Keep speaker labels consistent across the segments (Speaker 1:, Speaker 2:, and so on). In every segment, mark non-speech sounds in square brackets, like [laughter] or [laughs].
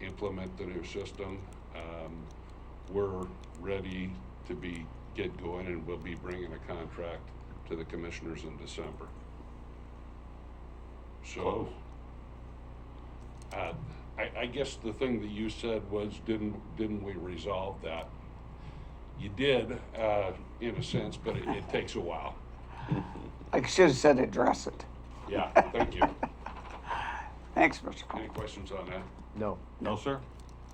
Speaker 1: implement their system. Um, We're ready to be, get going and we'll be bringing a contract to the commissioners in December. So. Uh, I, I guess the thing that you said was, didn't, didn't we resolve that? You did, uh, in a sense, but it, it takes a while.
Speaker 2: I should have said address it.
Speaker 1: Yeah, thank
Speaker 3: [laughs]
Speaker 1: you.
Speaker 2: Thanks, Mr. Coleman.
Speaker 1: Any questions on that?
Speaker 4: No,
Speaker 3: No, sir.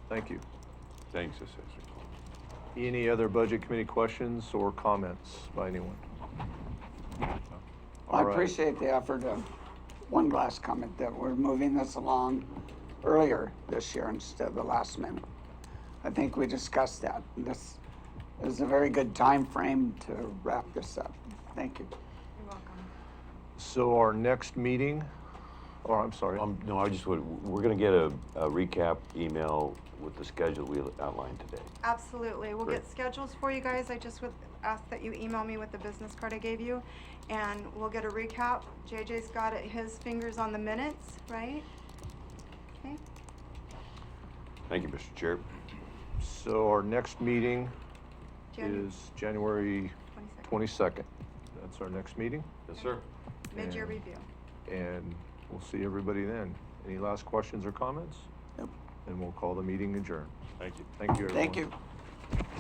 Speaker 4: thank you.
Speaker 3: Thanks, Assessor Coleman.
Speaker 4: Any other budget committee questions or comments by anyone?
Speaker 2: I
Speaker 4: All right.
Speaker 2: appreciate the effort of, one last comment, that we're moving this along earlier this year instead of the last minute. I think we discussed that. This is a very good time frame to wrap this up. Thank you.
Speaker 5: You're welcome.
Speaker 4: So our next meeting, or I'm sorry,
Speaker 3: Um, no, I just would, we're gonna get a, a recap email with the schedule we outlined today.
Speaker 5: Absolutely. We'll
Speaker 3: Great.
Speaker 5: get schedules for you guys. I just would ask that you email me with the business card I gave you, and we'll get a recap. JJ's got it, his fingers on the minutes, right? Okay.
Speaker 3: Thank you, Mr. Chair.
Speaker 4: so our next meeting
Speaker 5: January
Speaker 4: is January
Speaker 5: 22nd.
Speaker 4: 22nd. That's our next meeting,
Speaker 3: Yes, sir.
Speaker 5: Mid-year
Speaker 4: and-
Speaker 5: review.
Speaker 4: and we'll see everybody then. Any last questions or comments?
Speaker 2: Nope.
Speaker 4: And we'll call the meeting adjourned.
Speaker 3: Thank you.
Speaker 4: Thank you, everyone.
Speaker 2: Thank you.